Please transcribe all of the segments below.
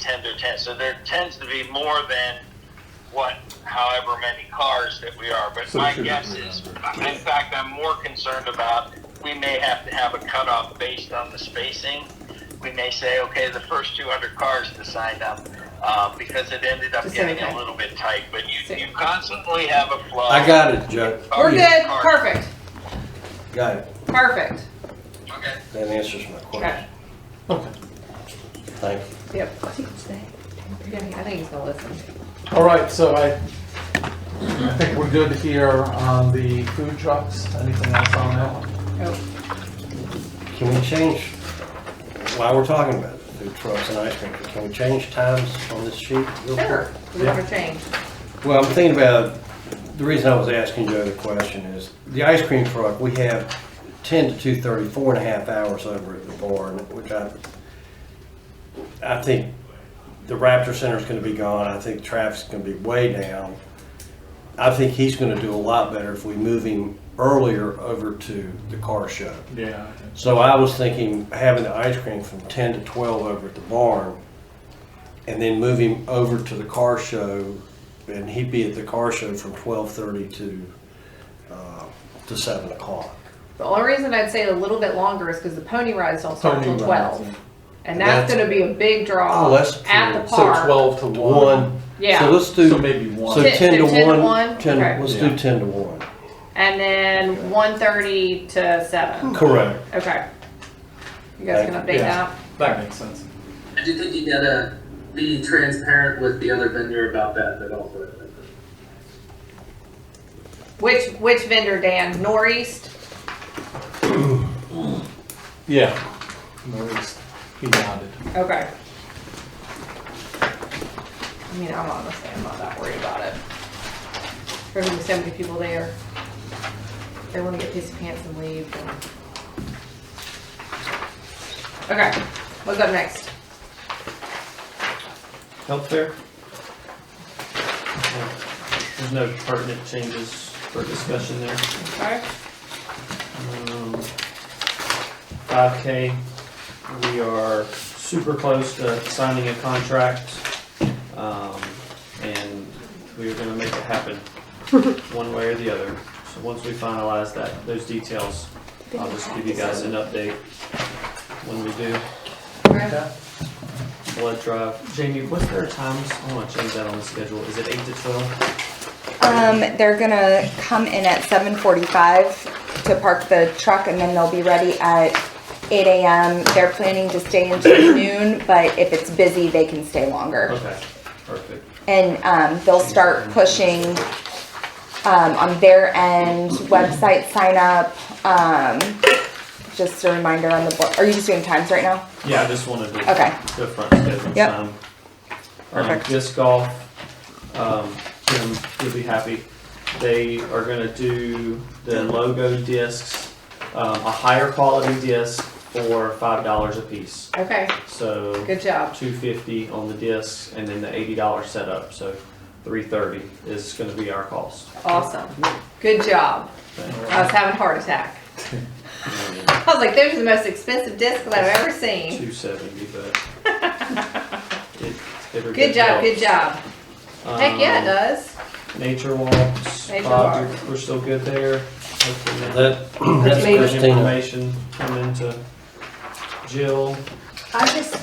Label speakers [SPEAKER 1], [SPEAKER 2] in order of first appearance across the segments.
[SPEAKER 1] tender ten. So there tends to be more than what, however many cars that we are. But
[SPEAKER 2] So
[SPEAKER 1] my
[SPEAKER 2] it should
[SPEAKER 1] guess
[SPEAKER 2] be
[SPEAKER 1] is,
[SPEAKER 2] around
[SPEAKER 1] in fact, I'm more concerned about we may have to have a cutoff based on the spacing. We may say, okay, the first 200 cars to sign up. Uh, because it ended up
[SPEAKER 3] Just
[SPEAKER 1] getting
[SPEAKER 3] okay.
[SPEAKER 1] a little bit tight, but you,
[SPEAKER 3] Six.
[SPEAKER 1] you constantly have a flow.
[SPEAKER 2] I got it, Judge.
[SPEAKER 3] We're
[SPEAKER 2] Oh, Yeah,
[SPEAKER 3] good, perfect,
[SPEAKER 2] Got it.
[SPEAKER 3] perfect.
[SPEAKER 1] Okay.
[SPEAKER 2] That answers my
[SPEAKER 3] Okay,
[SPEAKER 2] question. Thank you.
[SPEAKER 3] yep. I think he's staying. Yeah, I think he's gonna listen.
[SPEAKER 4] All right, so I, I think we're good here on the food trucks. Anything else on that one?
[SPEAKER 3] Oh,
[SPEAKER 2] Can we change, while we're talking about food trucks and ice cream, can we change times on this sheet? real quick?
[SPEAKER 3] Sure, we never change.
[SPEAKER 2] Well, I'm thinking about, the reason I was asking Joe the question is, the ice cream truck, we have ten to two thirty, four and a half hours over at the barn, which I, I think the Raptor Center's gonna be gone, I think traffic's gonna be way down. I think he's gonna do a lot better if we move him earlier over to the car show.
[SPEAKER 4] Yeah.
[SPEAKER 2] So I was thinking having the ice cream from ten to twelve over at the barn, and then move him over to the car show, and he'd be at the car show from twelve thirty to uh, to seven o'clock.
[SPEAKER 3] The only reason I'd say a little bit longer is because the pony rides don't start
[SPEAKER 4] Pony
[SPEAKER 3] till
[SPEAKER 4] rides,
[SPEAKER 3] twelve. And that's
[SPEAKER 2] That's-
[SPEAKER 3] gonna be a big draw
[SPEAKER 2] Oh, that's
[SPEAKER 3] at
[SPEAKER 2] true.
[SPEAKER 3] the
[SPEAKER 4] So
[SPEAKER 3] park.
[SPEAKER 4] twelve to one.
[SPEAKER 2] One.
[SPEAKER 3] Yeah.
[SPEAKER 2] So let's do
[SPEAKER 4] So maybe one.
[SPEAKER 2] so
[SPEAKER 3] Ten-
[SPEAKER 2] ten to
[SPEAKER 3] so 10 to
[SPEAKER 2] one.
[SPEAKER 3] one?
[SPEAKER 2] Ten.
[SPEAKER 3] Okay.
[SPEAKER 2] Let's
[SPEAKER 4] Yeah.
[SPEAKER 2] do ten to one.
[SPEAKER 3] And then one thirty to seven.
[SPEAKER 2] Correct.
[SPEAKER 3] Okay. You guys can update
[SPEAKER 4] Yeah.
[SPEAKER 3] that?
[SPEAKER 4] That makes sense.
[SPEAKER 5] I do think you gotta be transparent with the other vendor about that developer.
[SPEAKER 3] Which, which vendor, Dan? Northeast?
[SPEAKER 4] Yeah. Maurice, he nodded.
[SPEAKER 3] Okay. I mean, I'm honestly, I'm not that worried about it. There's gonna be so many people there. They wanna get pissy pants and leave. and- Okay, what's up next?
[SPEAKER 6] Health fair? There's no pertinent changes for discussion there.
[SPEAKER 3] Okay.
[SPEAKER 6] Five K, we are super close to signing a contract, um, and we are gonna make it happen, one way or the other. So once we finalize that, those details, I'll just give you guys an update when we do
[SPEAKER 3] Okay.
[SPEAKER 6] blood drive. Jamie, what's their times? I wanna change that on the schedule. Is it eight to twelve?
[SPEAKER 7] Um, they're gonna come in at seven forty-five to park the truck and then they'll be ready at eight AM. They're planning to stay until noon, but if it's busy, they can stay longer.
[SPEAKER 6] Okay, perfect.
[SPEAKER 7] And, um, they'll start pushing, um, on their end, website sign up, um, just a reminder on the board. Are you just doing times right now?
[SPEAKER 6] Yeah, I just wanted to.
[SPEAKER 7] Okay.
[SPEAKER 6] The front schedule
[SPEAKER 7] Yep.
[SPEAKER 6] time. Um,
[SPEAKER 7] Perfect.
[SPEAKER 6] Disc golf, um, Kim, you'll be happy. They are gonna do the logo discs, um, a higher quality disc for five dollars a piece.
[SPEAKER 3] Okay,
[SPEAKER 6] So
[SPEAKER 3] good job.
[SPEAKER 6] two fifty on the discs and then the eighty dollar setup, so three thirty is gonna be our cost.
[SPEAKER 3] Awesome. Good job. I was having a heart attack. I was like, those are the most expensive discs that I've ever seen.
[SPEAKER 6] Two seventy, but. it- every
[SPEAKER 3] Good job, good job.
[SPEAKER 6] helps.
[SPEAKER 3] Heck yeah,
[SPEAKER 6] Um,
[SPEAKER 3] it does.
[SPEAKER 6] Nature walks,
[SPEAKER 3] Nature
[SPEAKER 6] Bob, you're-
[SPEAKER 3] walks.
[SPEAKER 6] we're still good there. Hopefully that-
[SPEAKER 2] That
[SPEAKER 6] That's
[SPEAKER 2] that's
[SPEAKER 3] maybe-
[SPEAKER 2] Christina.
[SPEAKER 6] information coming into Jill.
[SPEAKER 8] I just,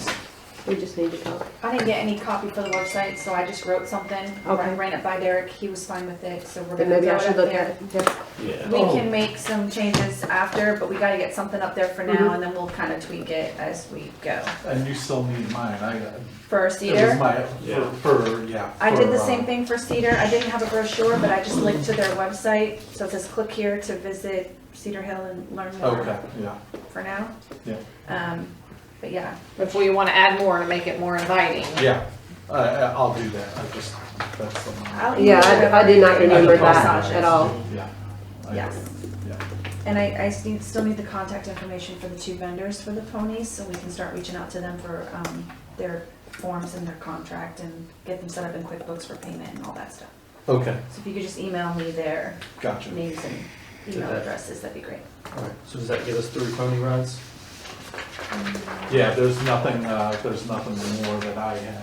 [SPEAKER 8] we just need to talk.
[SPEAKER 9] I didn't get any copy for the website, so I just wrote something.
[SPEAKER 8] Okay.
[SPEAKER 9] I ran it by Derek, he was fine with it, so we're
[SPEAKER 8] Then
[SPEAKER 9] gonna
[SPEAKER 8] maybe
[SPEAKER 9] throw
[SPEAKER 8] I
[SPEAKER 9] it
[SPEAKER 8] should
[SPEAKER 9] up
[SPEAKER 8] look at
[SPEAKER 9] there.
[SPEAKER 8] it.
[SPEAKER 6] Yeah.
[SPEAKER 9] We can
[SPEAKER 4] Oh.
[SPEAKER 9] make some changes after, but we gotta get something up there for
[SPEAKER 4] Mm-hmm.
[SPEAKER 9] now, and then we'll kinda tweak it as we go.
[SPEAKER 4] Oh, And you still need mine. I got.
[SPEAKER 9] For
[SPEAKER 4] It was
[SPEAKER 9] Cedar,
[SPEAKER 4] my,
[SPEAKER 6] Yeah.
[SPEAKER 4] for, for, yeah.
[SPEAKER 9] I did
[SPEAKER 4] for,
[SPEAKER 9] the
[SPEAKER 4] uh,
[SPEAKER 9] same thing for Cedar, I didn't have a brochure, but I just linked to their website, so it says click here to visit Cedar Hill and learn
[SPEAKER 4] Okay,
[SPEAKER 9] more
[SPEAKER 4] yeah.
[SPEAKER 9] for now.
[SPEAKER 4] Yeah.
[SPEAKER 9] Um, but yeah,
[SPEAKER 3] If we wanna add more to make it more inviting.
[SPEAKER 4] Yeah, I- I, I'll do that, I just, that's something.
[SPEAKER 9] I'll
[SPEAKER 8] Yeah, I, I did not
[SPEAKER 4] I
[SPEAKER 8] remember
[SPEAKER 4] can
[SPEAKER 8] that
[SPEAKER 4] process.
[SPEAKER 8] at all.
[SPEAKER 4] Yeah. I-
[SPEAKER 9] yes.
[SPEAKER 4] Yeah.
[SPEAKER 9] And I, I s- need, still need the contact information for the two vendors for the ponies, so we can start reaching out to them for, um, their forms and their contract and get them set up in QuickBooks for payment and all that stuff.
[SPEAKER 4] Okay,
[SPEAKER 9] So if you could just email me their
[SPEAKER 4] gotcha.
[SPEAKER 9] names and email
[SPEAKER 6] Did that.
[SPEAKER 9] addresses, that'd be great.
[SPEAKER 6] Alright, so does that get us through pony rides?
[SPEAKER 4] Yeah, there's nothing, uh, there's nothing more that I have